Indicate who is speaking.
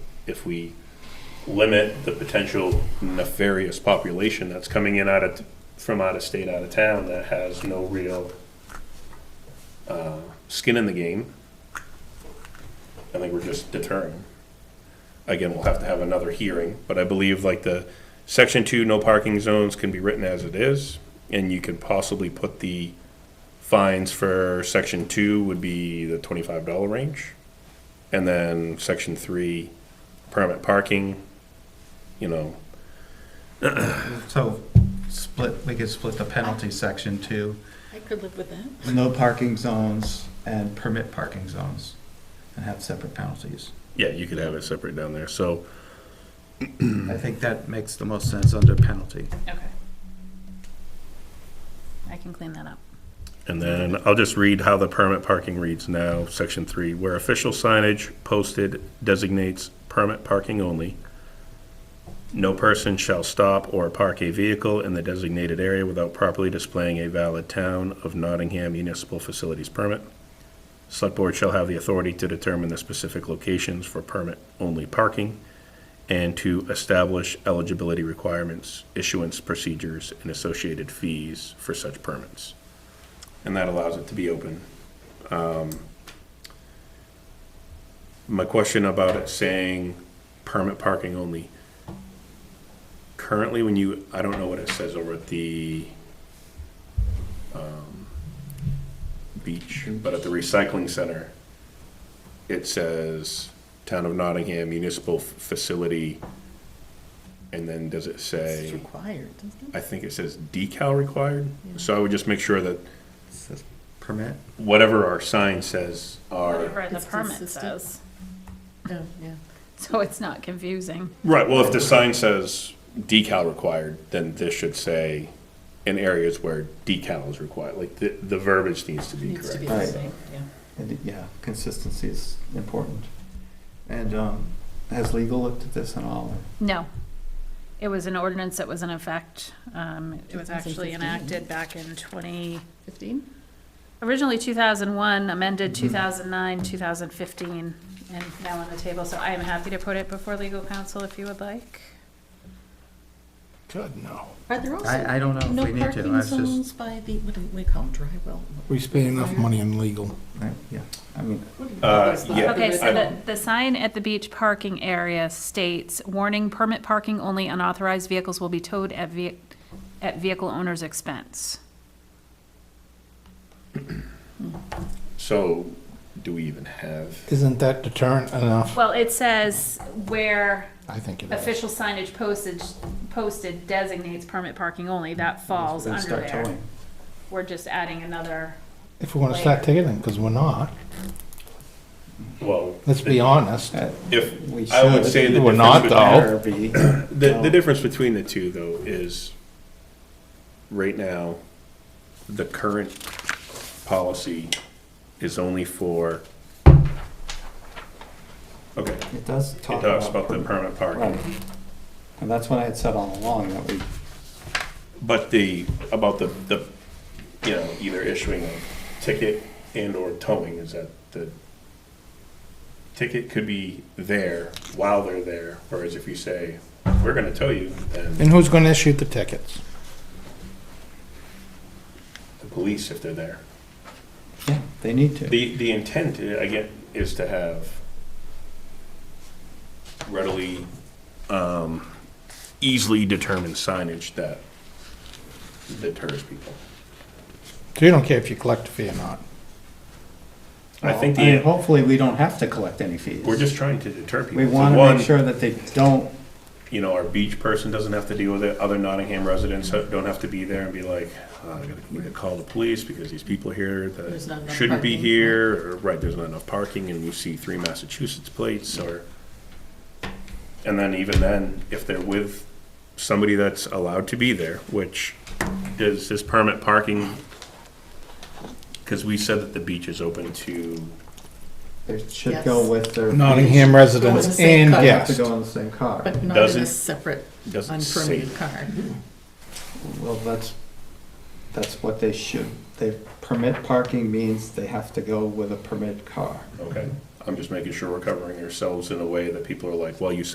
Speaker 1: if we limit the potential nefarious population that's coming in out of, from out of state, out of town, that has no real uh, skin in the game, I think we're just deterring. Again, we'll have to have another hearing, but I believe like the section two, no parking zones can be written as it is, and you could possibly put the fines for section two would be the twenty-five dollar range. And then section three, permit parking, you know,
Speaker 2: So split, we could split the penalty section to
Speaker 3: I could live with that.
Speaker 2: no parking zones and permit parking zones and have separate penalties.
Speaker 1: yeah, you could have it separate down there, so.
Speaker 2: I think that makes the most sense under penalty.
Speaker 3: Okay. I can clean that up.
Speaker 1: And then I'll just read how the permit parking reads now, section three, where official signage posted designates permit parking only. No person shall stop or park a vehicle in the designated area without properly displaying a valid town of Nottingham municipal facilities permit. Select board shall have the authority to determine the specific locations for permit-only parking and to establish eligibility requirements, issuance procedures, and associated fees for such permits and that allows it to be open. Um, My question about it saying permit parking only. Currently, when you, I don't know what it says over at the um, beach, but at the recycling center, it says Town of Nottingham Municipal F- Facility, and then does it say?
Speaker 3: It's required, doesn't
Speaker 1: I think it says decal required, so I would just make sure that
Speaker 2: Says Permit,
Speaker 1: whatever our sign says are.
Speaker 3: Whatever the
Speaker 4: It's
Speaker 3: permit
Speaker 4: consistent.
Speaker 3: says,
Speaker 4: Oh, yeah.
Speaker 3: so it's not confusing.
Speaker 1: Right, well, if the sign says decal required, then this should say in areas where decal is required, like the, the verbiage needs to be
Speaker 4: Needs to be
Speaker 1: correct.
Speaker 4: the
Speaker 2: Right.
Speaker 4: same, yeah.
Speaker 2: and yeah, consistency is important. And, um, has legal looked at this and all?
Speaker 3: No. It was an ordinance that was in effect. Um, It was actually
Speaker 4: 2015.
Speaker 3: enacted back in 20,
Speaker 4: Fifteen?
Speaker 3: originally 2001, amended 2009, 2015, and now on the table. So I am happy to put it before legal counsel if you would like.
Speaker 5: God, no.
Speaker 4: Are there also
Speaker 2: I, I don't know
Speaker 4: no
Speaker 2: if we need to, I
Speaker 4: parking
Speaker 2: was just,
Speaker 4: zones by the, what do we call them, dry well?
Speaker 5: We spend enough money on legal.
Speaker 2: I- yeah, I mean,
Speaker 4: What do you
Speaker 1: Uh,
Speaker 4: call those? The-
Speaker 1: yeah.
Speaker 3: Okay, so
Speaker 1: I-
Speaker 3: the, the sign at the beach parking area states, warning, permit parking only, unauthorized vehicles will be towed at ve- at vehicle owner's expense.
Speaker 1: So, do we even have,
Speaker 5: Isn't that deterrent enough?
Speaker 3: Well, it says where
Speaker 5: I think it is.
Speaker 3: official signage postage, posted designates permit parking only, that falls
Speaker 2: then
Speaker 3: under
Speaker 2: start
Speaker 3: there.
Speaker 2: towing.
Speaker 3: We're just adding another,
Speaker 5: If we want to start ticketing, because we're not,
Speaker 1: well,
Speaker 5: let's be honest.
Speaker 2: Uh,
Speaker 1: if,
Speaker 2: we
Speaker 1: I would
Speaker 2: should.
Speaker 1: say the
Speaker 5: We're
Speaker 1: difference
Speaker 5: not, though.
Speaker 1: between,
Speaker 2: Better be.
Speaker 1: the, the difference between the two though is, right now, the current policy is only for, okay,
Speaker 2: It does
Speaker 1: It
Speaker 2: talk
Speaker 1: talks about the
Speaker 2: about,
Speaker 1: permanent parking,
Speaker 2: right. And that's what I had said all along, that we
Speaker 1: but the, about the, the, you know, either issuing a ticket and or towing is that the ticket could be there while they're there, whereas if you say, we're gonna tow you, then
Speaker 5: And who's going to issue the tickets?
Speaker 1: the police if they're there.
Speaker 2: Yeah, they need to.
Speaker 1: The, the intent, I get, is to have readily, um, easily determined signage that deters people.
Speaker 5: So you don't care if you collect a fee or not?
Speaker 1: I think
Speaker 2: Well, mean,
Speaker 1: the,
Speaker 2: Hopefully, we don't have to collect any fees.
Speaker 1: We're just trying to deter people.
Speaker 2: We
Speaker 1: So
Speaker 2: want to
Speaker 1: one,
Speaker 2: make sure that they don't,
Speaker 1: You know, our beach person doesn't have to deal with it, other Nottingham residents don't have to be there and be like, "Oh, I gotta, we gotta call the police because these people here
Speaker 4: There's not
Speaker 1: that
Speaker 4: enough
Speaker 1: shouldn't be
Speaker 4: parking."
Speaker 1: here, or, right, there's not enough parking, and you see three Massachusetts plates, or. And then even then, if they're with somebody that's allowed to be there, which is this permit parking, because we said that the beach is open to
Speaker 2: they should go
Speaker 4: Yes.
Speaker 2: with their.
Speaker 5: Nottingham residents
Speaker 4: same
Speaker 5: and
Speaker 4: car.
Speaker 2: They Have to
Speaker 5: guests.
Speaker 2: go in the same car.
Speaker 4: But not in
Speaker 1: Doesn't-
Speaker 4: a separate
Speaker 1: doesn't say
Speaker 4: unpermitted car.
Speaker 2: Well, that's, that's what they should. They, permit parking means they have to go with a permit car.
Speaker 1: Okay, I'm just making sure we're covering ourselves in a way that people are like, well, you said